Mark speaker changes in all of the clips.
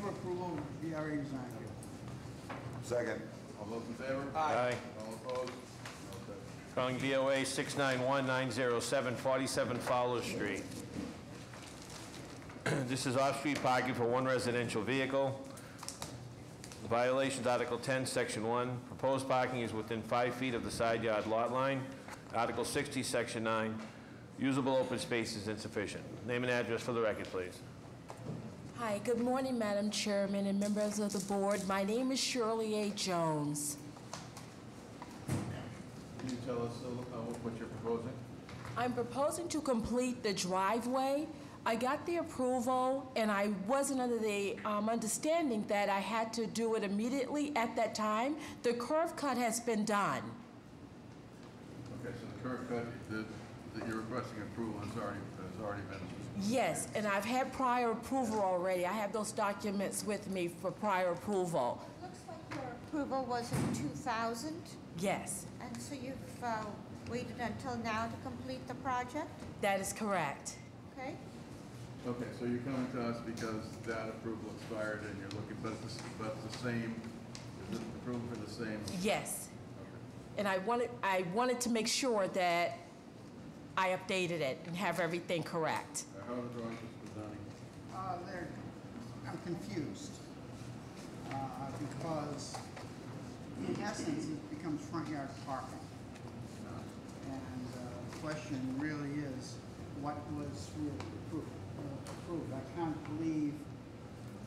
Speaker 1: approval of DRA design.
Speaker 2: Second.
Speaker 3: All those in favor?
Speaker 4: Aye.
Speaker 3: All opposed? No exceptions.
Speaker 4: Calling BOA 691-907-47 Fowler Street. This is off-street parking for one residential vehicle. The Violation's Article 10, Section 1. Proposed parking is within five feet of the side yard lot line. Article 60, Section 9. Usable open space is insufficient. Name and address for the record, please.
Speaker 5: Hi, good morning, Madam Chairman and members of the board. My name is Shirley A. Jones.
Speaker 3: Can you tell us uh, what what you're proposing?
Speaker 5: I'm proposing to complete the driveway. I got the approval, and I wasn't under the um, understanding that I had to do it immediately at that time. The curve cut has been done.
Speaker 3: Okay, so the curb cut that that you're requesting approval has already, has already been,
Speaker 5: Yes, and I've had prior approval already. I have those documents with me for prior approval.
Speaker 6: Looks like your approval was in 2000,
Speaker 5: Yes,
Speaker 6: and so you've uh, waited until now to complete the project,
Speaker 5: that is correct.
Speaker 6: okay?
Speaker 3: okay, so you're coming to us because that approval expired and you're looking, but it's, the- but it's the same, is it approval for the same?
Speaker 5: Yes. And I wanted, I wanted to make sure that I updated it and have everything correct.
Speaker 3: Uh, How are the drawings presenting?
Speaker 1: Uh, they're, I'm confused, uh, because in essence, it becomes front yard parking. And uh, the question really is, what was really approved? uh, approved? I can't believe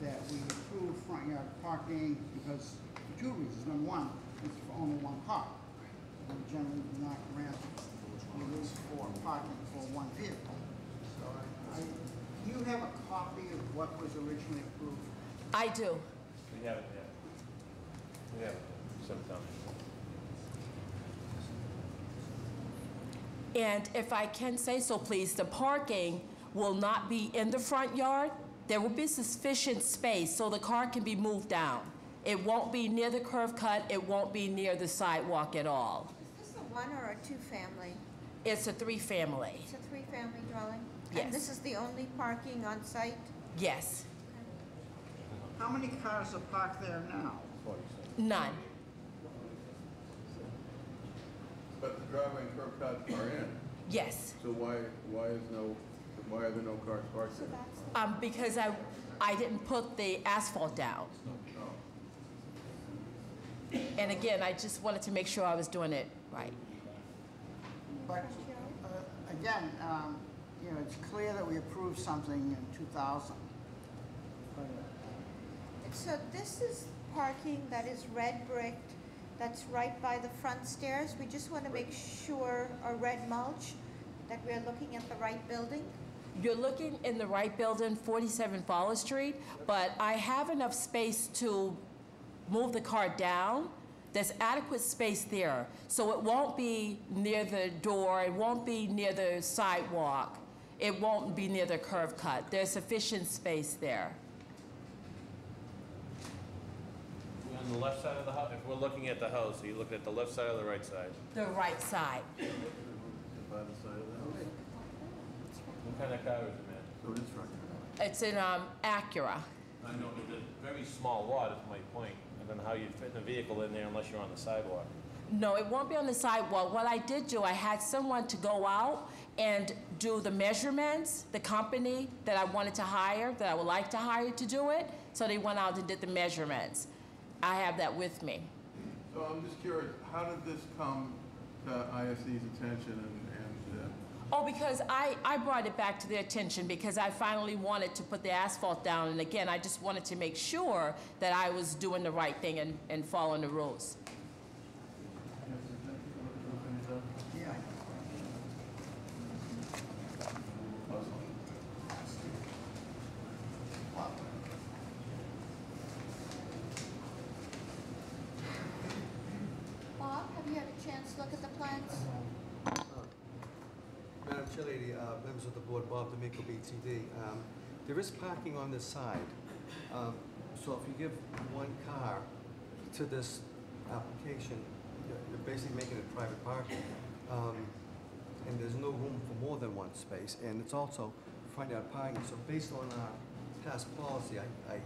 Speaker 1: that we approved front yard parking because, for two reasons. Number one, it's for only one car. We generally do not grant relief for parking for one vehicle. So I, I- you have a copy of what was originally approved?
Speaker 5: I do.
Speaker 4: We have it, We have it, sometime.
Speaker 5: And if I can say so, please, the parking will not be in the front yard. There will be sufficient space so the car can be moved down. It won't be near the curve cut, it won't be near the sidewalk at all.
Speaker 6: Is this a one or a two-family?
Speaker 5: It's a three-family,
Speaker 6: It's a three-family dwelling?
Speaker 5: Yes.
Speaker 6: And this is the only parking on site?
Speaker 5: yes.
Speaker 1: How many cars are parked there now?
Speaker 5: None,
Speaker 3: But the driveway and curb cut are in,
Speaker 5: yes.
Speaker 3: so why, why is no, why are there no cars parked there?
Speaker 5: Um, because I, I didn't put the asphalt down. And again, I just wanted to make sure I was doing it right.
Speaker 1: But, uh, again, um, you know, it's clear that we approved something in 2000. But
Speaker 6: And So this is parking that is red bricked, that's right by the front stairs? We just want to make sure, a red mulch, that we're looking at the right building?
Speaker 5: You're looking in the right building, 47 Fowler Street, but I have enough space to move the car down. There's adequate space there, so it won't be near the door, it won't be near the sidewalk, it won't be near the curve cut. There's sufficient space there.
Speaker 4: On the left side of the house, if we're looking at the house, are you looking at the left side or the right side?
Speaker 5: The right side.
Speaker 3: By the side of the house?
Speaker 4: What kind of car is it, man?
Speaker 3: So it is front yard.
Speaker 5: It's in um, Acura.
Speaker 4: I know, but it's a very small lot is my point. I don't know how you'd fit in a vehicle in there unless you're on the sidewalk.
Speaker 5: No, it won't be on the sidewalk. What I did do, I had someone to go out and do the measurements, the company that I wanted to hire, that I would like to hire to do it. So they went out and did the measurements. I have that with me.
Speaker 3: So I'm just curious, how did this come to ISD's attention and, and, uh,
Speaker 5: Oh, because I, I brought it back to their attention because I finally wanted to put the asphalt down. And again, I just wanted to make sure that I was doing the right thing and, and following the rules.
Speaker 1: Yeah,
Speaker 6: Bob, have you had a chance to look at the plans?
Speaker 7: Uh, Madam Chair Lady, uh, members of the board, Bob D'Amico, BTD. Um, There is parking on this side, Um, so if you give one car to this application, you're- you're basically making it private parking. Um, And there's no room for more than one space, and it's also front yard parking. So based on our past policy, I I